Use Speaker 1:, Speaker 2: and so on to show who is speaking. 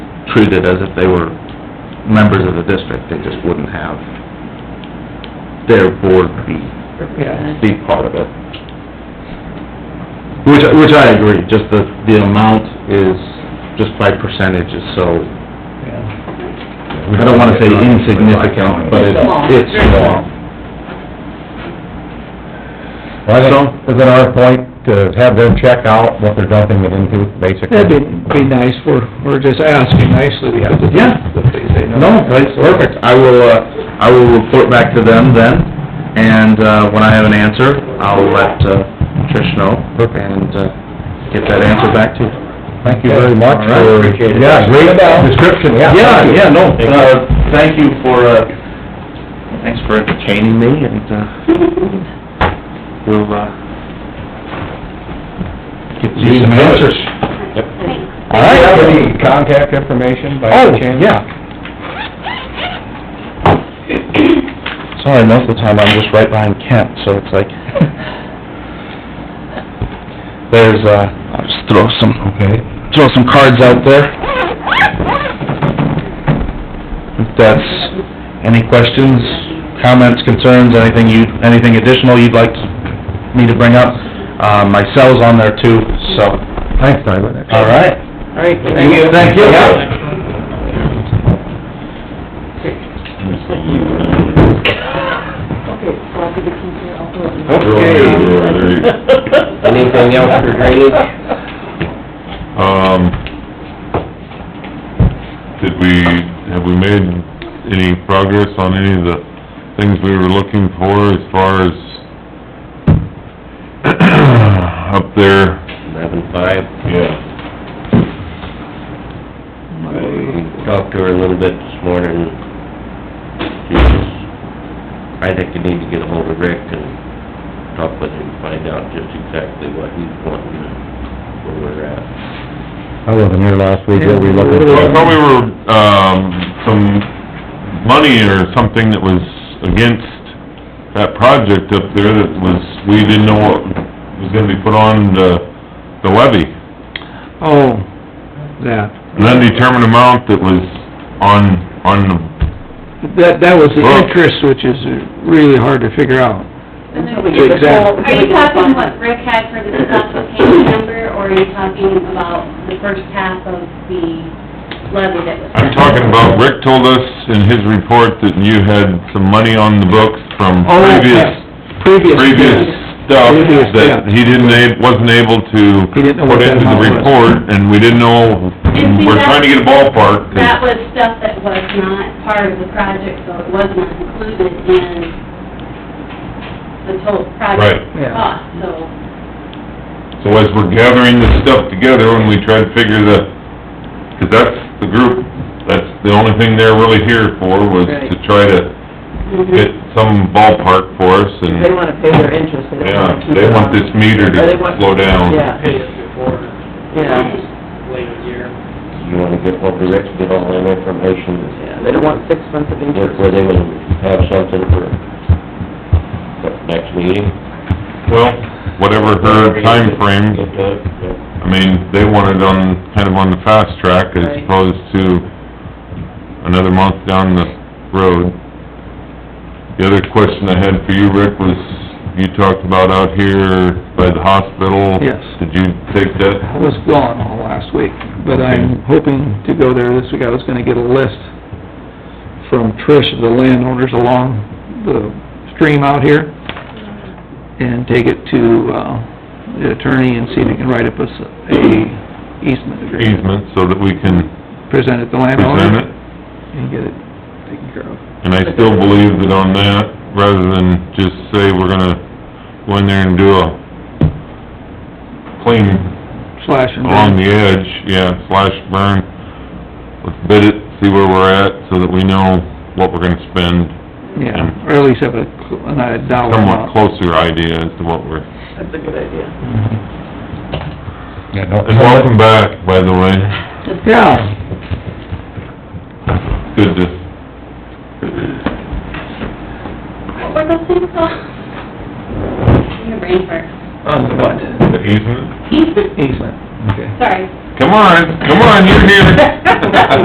Speaker 1: treated as if they were members of the district, they just wouldn't have their board be,
Speaker 2: Yeah.
Speaker 1: be part of it. Which, which I agree, just the, the amount is, just by percentage is so,
Speaker 2: Yeah.
Speaker 1: I don't wanna say insignificant, but it's, it's small.
Speaker 3: Well, I think, is it our point to have them check out what they're dumping it into, basically?
Speaker 2: That'd be, be nice, we're, we're just asking nicely, we have to.
Speaker 1: Yeah.
Speaker 2: That they say no.
Speaker 1: No, that's perfect. I will, uh, I will report back to them then, and, uh, when I have an answer, I'll let, uh, Trish know, and, uh, get that answer back to you.
Speaker 3: Thank you very much
Speaker 1: All right,
Speaker 3: for,
Speaker 1: appreciate it.
Speaker 3: yeah, great description, yeah.
Speaker 1: Yeah,
Speaker 3: thank you.
Speaker 1: yeah, no, uh, thank you for, uh, thanks for entertaining me, and, uh, we'll, uh, get you
Speaker 3: Need
Speaker 1: some
Speaker 3: some
Speaker 1: answers.
Speaker 3: answers. All right, have any contact information by
Speaker 1: Oh,
Speaker 3: any chance?
Speaker 1: yeah. Sorry, most of the time I'm just right behind Kent, so it's like, there's, uh, I'll just throw some,
Speaker 3: Okay.
Speaker 1: throw some cards out there. If that's, any questions, comments, concerns, anything you, anything additional you'd like me to bring up? Uh, my cell's on there too, so,
Speaker 3: Thanks, Tyler.
Speaker 1: all right.
Speaker 2: All right, thank you.
Speaker 1: Thank you.
Speaker 4: Anything else for drainage?
Speaker 5: Um, did we, have we made any progress on any of the things we were looking for as far as up there?
Speaker 4: Eleven-five.
Speaker 5: Yeah.
Speaker 4: Talked to her a little bit this morning. She's, I think you need to get ahold of Rick and talk with him, find out just exactly what he's wanting and where we're at.
Speaker 3: I wasn't here last week, what we looking
Speaker 5: Well, I thought we
Speaker 3: for?
Speaker 5: were, um, some money or something that was against that project up there that was, we didn't know what was gonna be put on the, the levy.
Speaker 2: Oh, that,
Speaker 5: And then determine amount that was on, on the,
Speaker 2: that, that was the
Speaker 5: Well-
Speaker 2: interest, which is really hard to figure out.
Speaker 6: And then
Speaker 2: The exact-
Speaker 6: Are you talking what Rick had for the consultation number, or are you talking about the first half of the levy that was?
Speaker 5: I'm talking about, Rick told us in his report that you had some money on the books from
Speaker 2: Oh, okay.
Speaker 5: previous,
Speaker 2: Previous.
Speaker 5: previous stuff
Speaker 2: Previous,
Speaker 5: that
Speaker 2: yeah.
Speaker 5: he didn't, ab- wasn't able to
Speaker 2: He didn't know what
Speaker 5: put
Speaker 2: that
Speaker 5: into the
Speaker 2: amount was.
Speaker 5: report, and we didn't know,
Speaker 6: And see,
Speaker 5: we're
Speaker 6: that-
Speaker 5: trying to get a ballpark. 'cause-
Speaker 6: That was stuff that was not part of the project, so it was not included in the total project
Speaker 5: Right.
Speaker 2: Yeah.
Speaker 6: cost, so.
Speaker 5: So as we're gathering this stuff together, and we try to figure the, 'cause that's the group, that's the only thing they're really here for, was to
Speaker 7: Right.
Speaker 5: try to get some ballpark for us, and...
Speaker 7: They wanna pay their interest, they don't wanna
Speaker 5: Yeah,
Speaker 7: keep
Speaker 5: they
Speaker 7: it
Speaker 5: want
Speaker 7: on.
Speaker 5: this meter
Speaker 7: Or they
Speaker 5: to
Speaker 7: want-
Speaker 5: slow down.
Speaker 7: Yeah,
Speaker 8: pay us before
Speaker 7: yeah,
Speaker 8: later year.
Speaker 4: You wanna get hold of Rick, get all that information,
Speaker 7: yeah, they don't want six months of
Speaker 4: look
Speaker 7: interest.
Speaker 4: where they will have something for, what, next meeting?
Speaker 5: Well, whatever her time frame.
Speaker 4: Get that, yeah.
Speaker 5: I mean, they want it on, kind of on the fast track as
Speaker 7: Right.
Speaker 5: opposed to another month down the road. The other question I had for you, Rick, was you talked about out here by the hospital.
Speaker 2: Yes.
Speaker 5: Did you take that?
Speaker 2: I was gone all last week, but I'm hoping to go there this week. I was gonna get a list from Trish of the landowners along the stream out here and take it to, uh, the attorney and see if he can write up a, s- a easement agreement.
Speaker 5: Easement so that we can
Speaker 2: Present it to
Speaker 5: present
Speaker 2: landowners
Speaker 5: it?
Speaker 2: and get it taken care of.
Speaker 5: And I still believe that on that, rather than just say we're gonna go in there and do a clean
Speaker 2: Slash and
Speaker 5: along
Speaker 2: burn.
Speaker 5: the edge, yeah, slash burn, let's bid it, see where we're at, so that we know what we're gonna spend,
Speaker 2: Yeah, or at least have a, cl- a dollar
Speaker 5: somewhat
Speaker 2: amount.
Speaker 5: closer idea as to what we're...
Speaker 7: That's a good idea.
Speaker 3: Yeah, don't-
Speaker 5: And welcome back, by the way,
Speaker 2: Yeah.
Speaker 5: good to
Speaker 6: What were those things called? Your brain fart.
Speaker 2: On the what?
Speaker 5: the easement.
Speaker 6: Easement,
Speaker 2: Easement, okay.
Speaker 6: sorry.
Speaker 5: Come on, come on, you're here.